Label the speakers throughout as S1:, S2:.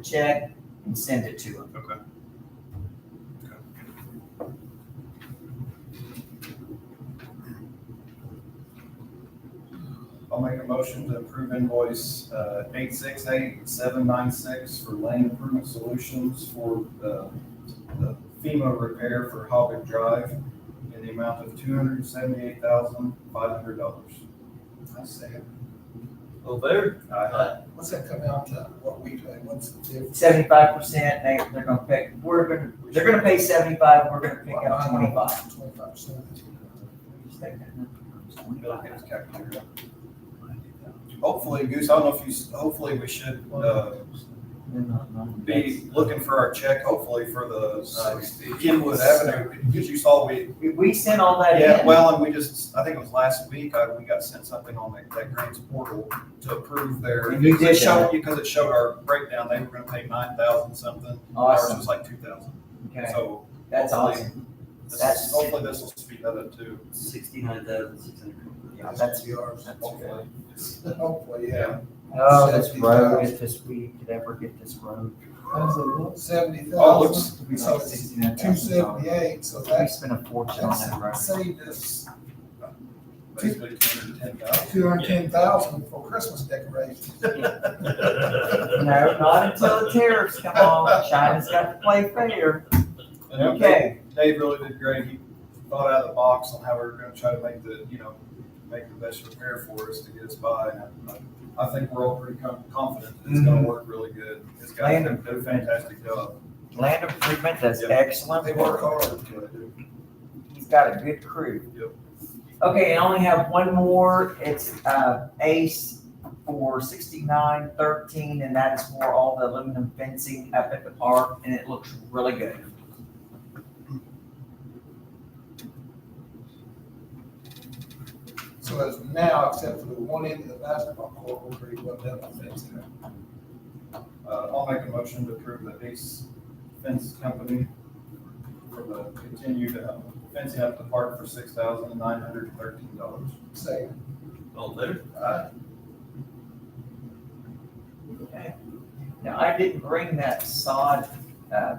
S1: check and send it to them.
S2: Okay.
S3: I'll make a motion to approve invoice uh, eight six eight seven nine six for lane improvement solutions for uh, the FEMA repair for Hobbit Drive in the amount of two hundred seventy-eight thousand five hundred dollars.
S4: I say,
S2: All there.
S4: what's that come out to, what we pay, what's the difference?
S1: Seventy-five percent, they, they're gonna pay, we're gonna, they're gonna pay seventy-five, we're gonna pick up twenty-five.
S4: Twenty-five percent of the two
S1: Just take that
S3: I feel like
S1: number.
S3: it was calculated. Hopefully, Goose, I don't know if you, s- hopefully we should uh, be looking for our check, hopefully for the uh, Kenwood Avenue, because you saw we,
S1: We- We sent all that in.
S3: Yeah, well, and we just, I think it was last week, I, we got sent something on that, that grants portal to approve their.
S1: You did
S3: It showed, because it showed our breakdown, they were gonna pay nine thousand something, ours
S1: Awesome,
S3: was like two thousand,
S1: okay,
S3: so.
S1: that's
S3: hopefully
S1: awesome.
S3: this-
S1: That's-
S3: Hopefully this will speed that up too,
S5: Sixty-nine thousand six hundred.
S1: Yeah,
S4: hundred.
S1: that's
S4: yours.
S1: that's
S3: hopefully.
S4: Hopefully, yeah.
S1: Oh, this road, if this, we could ever get this road.
S4: That's a one seventy
S3: Oh, it
S4: thousand,
S3: looks,
S1: We
S4: So
S1: spent
S4: it's
S1: sixty-nine
S4: two
S1: thousand dollars.
S4: seventy-eight, so
S1: We
S4: that's,
S1: spent a fortune on that road.
S4: that's saved us
S3: basically two hundred and ten thousand.
S4: two hundred ten thousand for Christmas decorations.
S1: No, not until the tariffs come on, China's got to play fair.
S3: And
S1: Okay,
S3: Dave really did great. He thought out of the box on how we were gonna try to make the, you know, make the best repair for us to get us by. And I- I think we're all pretty com- confident that it's gonna work really good. This guy's done a fantastic job.
S1: land improvement does
S3: Yep.
S1: excellent
S4: They
S1: work.
S4: work hard.
S1: He's got a good crew.
S3: Yep.
S1: Okay, I only have one more. It's uh, Ace for sixty-nine thirteen, and that is for all the aluminum fencing up at the park, and it looks really good.
S4: So as of now, except for the one end of the basketball court, we're pretty well done on fencing.
S3: Uh, I'll make a motion to approve the Ace Fence Company for the continued uh, fencing up the park for six thousand nine hundred and thirteen dollars.
S4: Say,
S2: All there.
S4: uh,
S1: Okay. Now, I didn't bring that sod uh,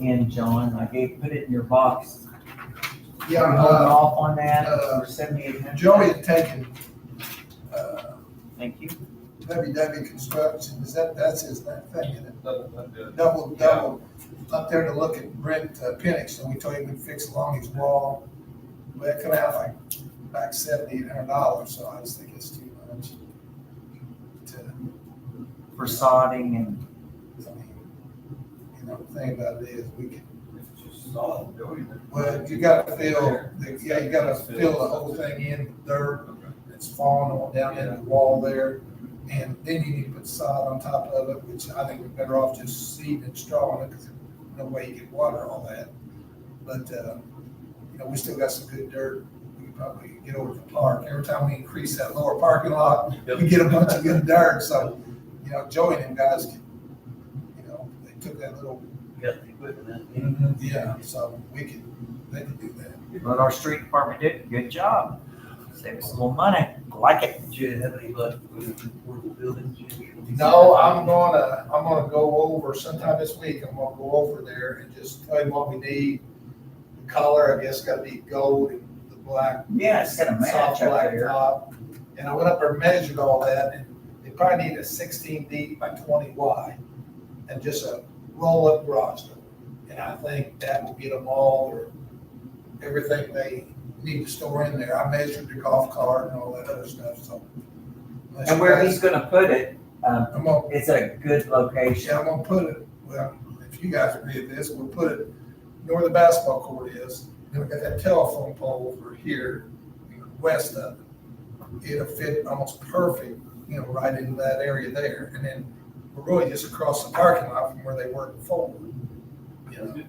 S1: in, John. I gave, put it in your box.
S4: yeah,
S1: We're holding
S4: uh,
S1: off on that
S4: uh,
S1: for seventy-eight hundred.
S4: Joey had taken, uh,
S1: Thank you.
S4: WW Construction, is that, that's his, that thing, isn't it?
S3: That- that did.
S4: double, double up there to look at Brent uh, Penix, and we told him we'd fix along his wall. But it come out like, like seventy, eight hundred dollars, so I just think it's too much. To,
S1: For sodding and,
S4: I mean, you know, the thing about it is, we can,
S3: It's just solid doing it.
S4: well, you gotta fill, the- yeah, you gotta fill the whole thing in, with dirt that's falling on down into the wall there. And then you need to put sod on top of it, which I think we're better off just seed and straw in it, because no way you can water all that. But, uh, you know, we still got some good dirt, we could probably get over the park, every time we increase that lower parking lot, we get a bunch of good dirt, so, you know, Joey and them guys, can, you know, they took that little,
S5: Got the equipment out.
S4: yeah, so we could, they could do that.
S1: but our street department did a good job. Saved us a little money. Like it.
S5: Do you have any luck with the portable building?
S4: No, I'm gonna, I'm gonna go over sometime this week, I'm gonna go over there and just tell you what we need. The Color, I guess, gotta be gold and the black.
S1: Yeah, it's got a match
S4: soft
S1: up
S4: black
S1: there.
S4: top. And I went up there and measured all that, and they probably need a sixteen deep by twenty wide, and just a roll-up garage door. And I think that will get them all, or everything they need to store in there, I measured the golf cart and all that other stuff, so.
S1: And where he's gonna put it, um,
S4: I'm gonna
S1: it's a good location.
S4: yeah, I'm gonna put it, well, if you guys agree with this, we'll put it where the basketball court is, then we got that telephone pole over here, west of it. It'll fit almost perfect, you know, right into that area there, and then we're really just across the parking lot from where they were before. You know,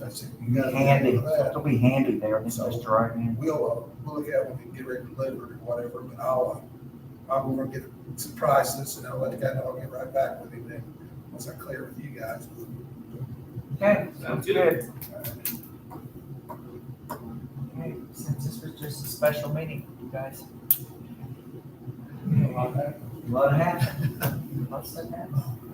S4: that's it. You gotta
S1: Handy.
S4: remember that.
S1: It'll be handy there, this is driving.
S4: We'll, uh, we'll look at when we get ready to deliver it or whatever, but I'll, uh, I'll go over and get some prices and I'll let the guy know I'll get right back with him then, once I clear with you guys.
S1: Okay,
S2: Sounds
S1: sounds
S2: good.
S1: good. Okay, Since this was just a special meeting, you guys,
S4: You know, I'll have-
S1: a lot happened. Lots that happened.